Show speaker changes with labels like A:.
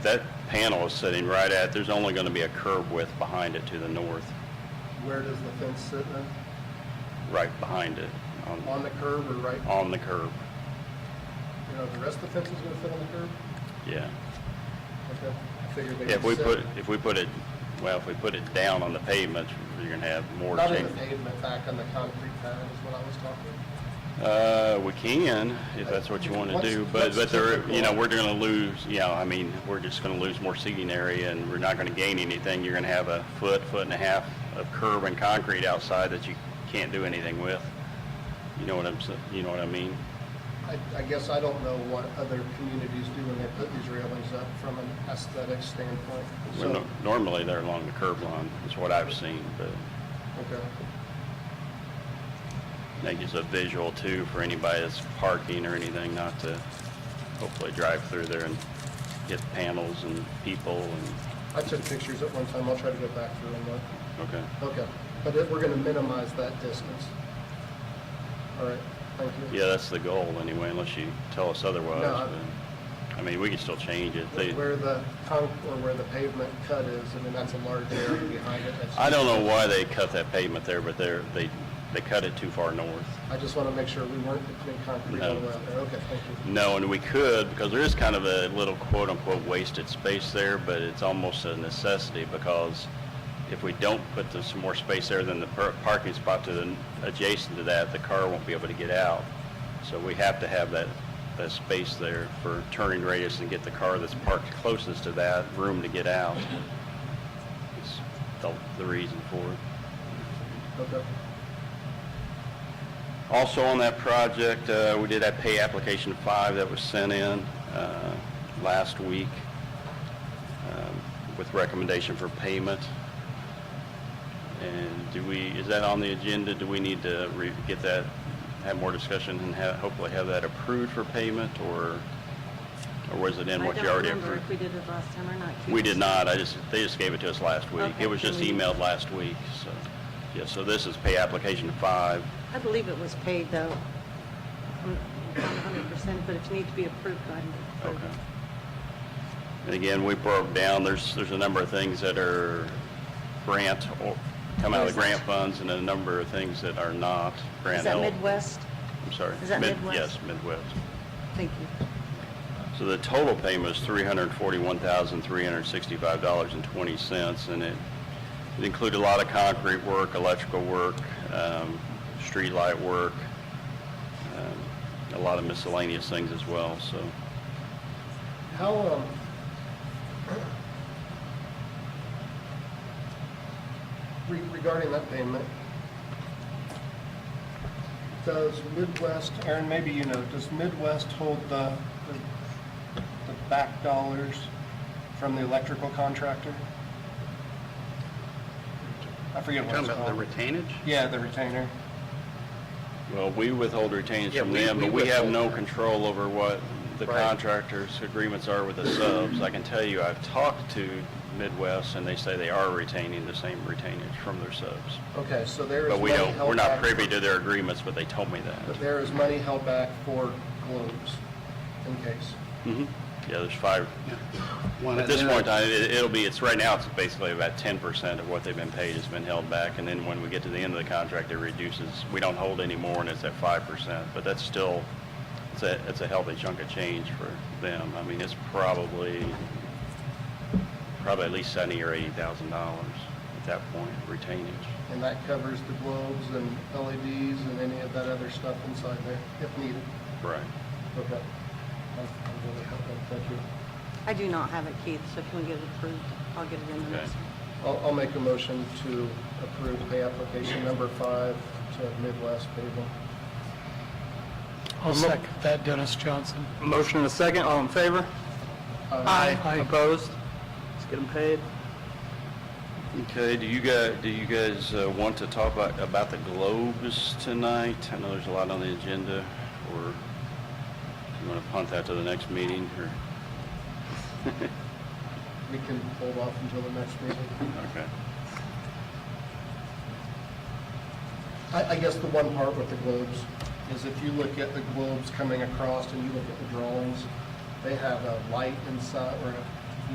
A: That panel is sitting right at, there's only going to be a curb width behind it to the north,
B: Where does the fence sit then?
A: right behind it, on,
B: On the curb or right,
A: on the curb,
B: you know, the rest of the fence is gonna fit on the curb?
A: yeah.
B: Okay. I figured they
A: If we
B: would
A: put,
B: sit.
A: if we put it, well, if we put it down on the pavement, you're going to have more
B: Not in the
A: change.
B: pavement, back on the concrete pad is what I was talking about.
A: Uh, we can, if that's what you want to
B: What's-
A: do, but,
B: what's
A: but there,
B: typical?
A: you know, we're going to lose, you know, I mean, we're just going to lose more seating area and we're not going to gain anything. You're going to have a foot, foot and a half of curb and concrete outside that you can't do anything with. You know what I'm, s- you know what I mean?
B: I, I guess I don't know what other communities do when they put these railings up from an aesthetic standpoint.
A: Well,
B: So,
A: no- Normally, they're along the curb line, is what I've seen, but
B: okay.
A: that gives a visual too for anybody that's parking or anything, not to hopefully drive through there and hit panels and people and,
B: I took pictures at one time. I'll try to go back through and look.
A: okay.
B: Okay. But it- we're gonna minimize that distance. All right, thank you.
A: Yeah, that's the goal anyway, unless you tell us otherwise.
B: No, I-
A: but, I mean, we can still change it. They-
B: Where the con, or where the pavement cut is, I mean, that's a large area behind it. That's-
A: I don't know why they cut that pavement there, but they're, they, they cut it too far north.
B: I just want to make sure we weren't between concrete
A: No.
B: and well there. Okay, thank you.
A: No, and we could, because there is kind of a little quote-unquote wasted space there, but it's almost a necessity, because if we don't put the- some more space there, then the per- parking spot to the, adjacent to that, the car won't be able to get out. So we have to have that, that space there for turning radius and get the car that's parked closest to that room to get out. It's the, the reason for it.
B: Okay.
A: Also on that project, uh, we did have pay application five that was sent in uh, last week um, with recommendation for payment. And do we, is that on the agenda? Do we need to re- get that, have more discussion and ha- hopefully have that approved for payment or, or was it in what you already
C: I don't remember if
A: approved?
C: we did it last time or not.
A: We did not, I just, they just gave it to us last week.
C: Okay,
A: It was
C: can
A: just
C: we-
A: emailed last week, so, yeah, so this is pay application five.
C: I believe it was paid, though. I'm Not 100%, but if you need to be approved, go ahead and approve.
A: Okay. And again, we broke down, there's, there's a number of things that are grant, or come out of the grant funds, and a number of things that are not grant.
C: Is that
A: el-
C: Midwest?
A: I'm sorry.
C: is that
A: Mid-
C: Midwest?
A: Yes, Midwest.
C: Thank you.
A: So the total payment is $341,365.20, and it it included a lot of concrete work, electrical work, um, streetlight work, um, a lot of miscellaneous things as well, so.
B: How, um, re- regarding that payment, does Midwest, Aaron, maybe you know, does Midwest hold the, the- the back dollars from the electrical contractor? I forget what it's called.
A: retainage?
B: Yeah, the retainer.
A: Well, we withhold retainage
B: Yeah,
A: from
B: we-
A: them,
B: we
A: but we have
B: withhold.
A: no control over what the
B: Right.
A: contractors' agreements are with the subs. I can tell you, I've talked to Midwest, and they say they are retaining the same retainage from their subs.
B: Okay, so there is
A: But we
B: money
A: don't,
B: held
A: we're not
B: back-
A: privy to their agreements, but they told me
B: But
A: that.
B: there is money held back for globes, in case.
A: Mhm. Yeah, there's five. At this point in time, it- it'll be, it's, right now, it's basically about 10% of what they've been paid has been held back, and then when we get to the end of the contract, it reduces, we don't hold any more, and it's at 5%, but that's still, it's a, it's a healthy chunk of change for them. I mean, it's probably, probably at least 70 or $80,000 at that point, retainage.
B: And that covers the globes and LEDs and any of that other stuff inside there, if needed.
A: Right.
B: Okay. I'm I'm really helping, thank you.
C: I do not have it, Keith, so if you want to get it approved, I'll get it in the
A: Okay.
C: next one.
B: I'll, I'll make a motion to approve pay application number five to Midwest Paving.
D: I'll second that, Dennis Johnson.
E: Motion and a second, all in favor?
B: Aye.
E: Opposed? Let's get them paid.
A: Okay, do you guys, do you guys uh, want to talk about, about the globes tonight? I know there's a lot on the agenda, or you want to punt that to the next meeting, or,
B: We can hold off until the next meeting.
A: okay.
B: I, I guess the one part with the globes is if you look at the globes coming across and you look at the drawings, they have a light inside or a